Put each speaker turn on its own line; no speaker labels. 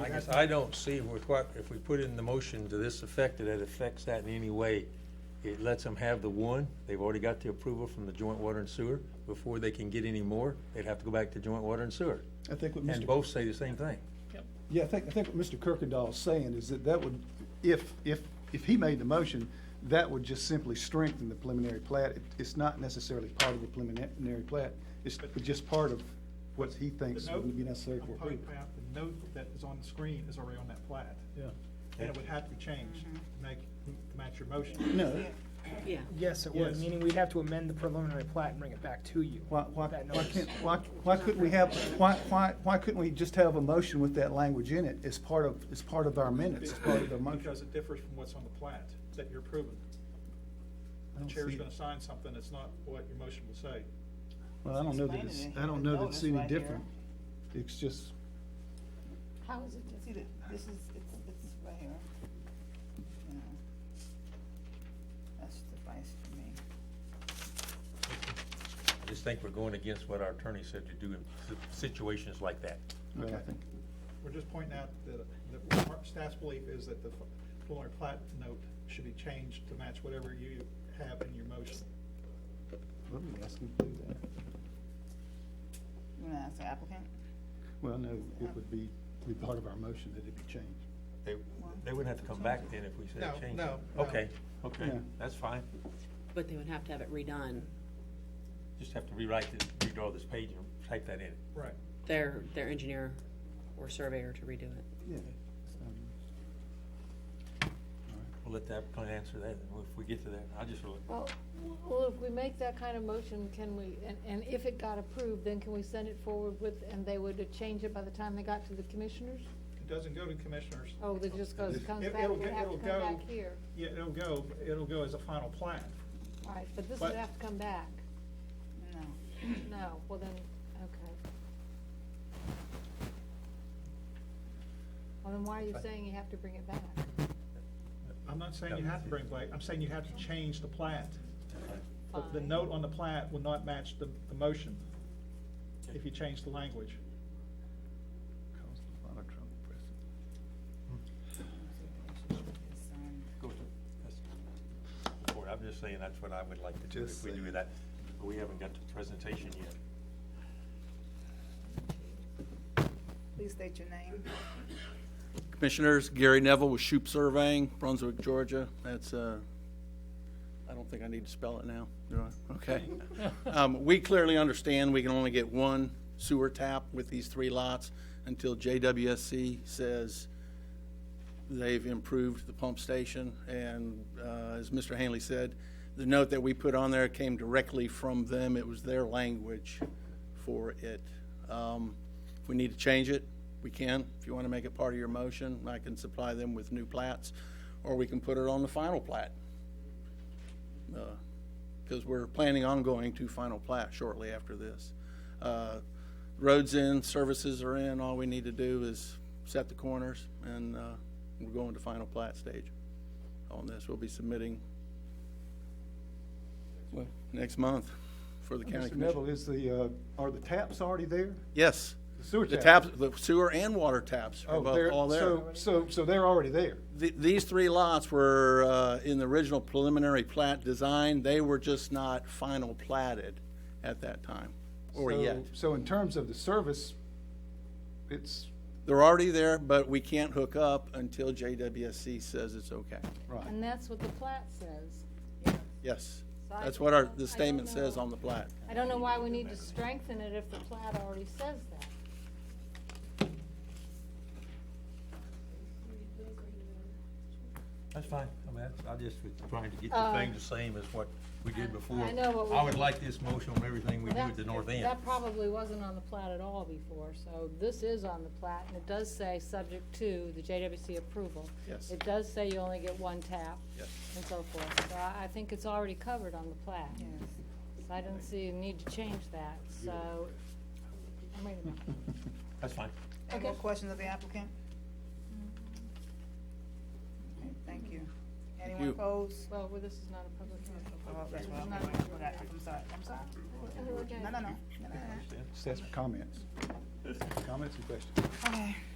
I guess I don't see with what, if we put in the motion to this effect, that it affects that in any way. It lets them have the one, they've already got the approval from the joint water and sewer. Before they can get any more, they'd have to go back to joint water and sewer.
I think what
And
Mr.
both say the same thing.
Yeah, I think, I think what Mr. Kirkendall is saying is that that would, if, if, if he made the motion, that would just simply strengthen the preliminary plat. It- It's not necessarily part of the preliminary plat. It's just part of what he thinks
The note-
would be necessary
I'm
for
talking
approval.
about The note that is on the screen is already on that plat.
Yeah.
And it would have to be changed to make, to match your motion.
No,
Yeah.
Yes, it would,
Yes.
meaning we'd have to amend the preliminary plat and bring it back to you.
why, why,
That
why
notice.
can't, why, why couldn't we have, why, why, why couldn't we just have a motion with that language in it as part of, as part of our minutes, as part of the motion?
Because it differs from what's on the plat that you're approving.
I
The
don't
chair's
see-
gonna sign something that's not what your motion will say.
Well, I don't know that
Explain
it's,
it in
I don't
the
know that it's
notice
any
right here.
different. It's just,
How is it, see, that this is, it's, it's right here. You know. That's suffice for me.
I just think we're going against what our attorney said to do in si- situations like that.
well, I think,
We're just pointing out that, that our staff's belief is that the preliminary plat note should be changed to match whatever you have in your motion.
let me ask him to do that.
You wanna ask the applicant?
Well, no, it would be, be part of our motion that it be changed.
They, they wouldn't have to come back then if we said
No,
change it.
no, no.
Okay, okay,
Yeah.
that's fine.
But they would have to have it redone.
Just have to rewrite this, redraw this page and type that in.
Right.
Their, their engineer or surveyor to redo it.
Yeah. Um,
We'll let the applicant answer that if we get to that. I just, really-
Well, well, if we make that kind of motion, can we, and, and if it got approved, then can we send it forward with, and they would change it by the time they got to the commissioners?
It doesn't go to commissioners.
Oh, that just goes, comes
It-
back,
it'll
would
go-
have to
it'll
come back
go-
here.
Yeah, it'll go, it'll go as a final plat.
All right, but this
But-
would have to come back.
No.
No, well then, okay. Well, then why are you saying you have to bring it back?
I'm not saying you have to bring back, I'm saying you have to change the plat. The- The
Fine.
note on the plat will not match the, the motion if you change the language.
Caused a lot of trouble, President.
Go to, that's, the board. I'm just saying that's what I would like to do if
Just
we do
saying.
that. But we haven't got the presentation yet.
Please state your name.
Commissioners, Gary Neville with Shoup Surveying, Brunswick, Georgia. That's, uh, I don't think I need to spell it now, do I? Okay. Um, We clearly understand we can only get one sewer tap with these three lots until JWSC says they've improved the pump station. And uh, as Mr. Hanley said, the note that we put on there came directly from them. It was their language for it. Um, If we need to change it, we can. If you want to make it part of your motion, I can supply them with new plats, or we can put it on the final plat. Because we're planning on going to final plat shortly after this. Uh, Roads in, services are in, all we need to do is set the corners, and uh, we're going to final plat stage on this. We'll be submitting well, next month for the county
Mr.
commission.
Neville, is the, uh, are the taps already there?
Yes.
The sewer
The
taps.
taps, the sewer and water taps are
Oh,
both
they're,
all there.
so, so, so they're already there.
Th- These three lots were uh, in the original preliminary plat design. They were just not final platted at that time, or
So-
yet.
So in terms of the service, it's,
They're already there, but we can't hook up until JWSC says it's okay.
right.
And that's what the plat says.
Yes.
So I
That's
don't
what our,
know- I
the
don't
statement says
know.
on the plat.
I don't know why we need to strengthen it if the plat already says that.
That's fine. I mean, that's, I just was trying to get the
Uh,
thing the same as what we did before.
I know, but we-
I would like this motion on everything we do
Well,
at the
that-
north end.
That probably wasn't on the plat at all before, so this is on the plat, and it does say, subject to the JWC approval.
Yes.
It does say you only get one tap.
Yes.
And so forth, so I, I think it's already covered on the plat.
Yes.
So I don't see a need to change that, so, I'm ready now.
That's fine.
Any more
Okay.
questions of the applicant? Okay, Thank you. Anyone
you.
opposed?
Well, well, this is not a public hearing.
Oh, that's what I- I forgot. I'm sorry, I'm sorry.
Oh, okay.
No, no, no, no, no, no.
Just ask for comments. Comments and questions.
Okay,
Um,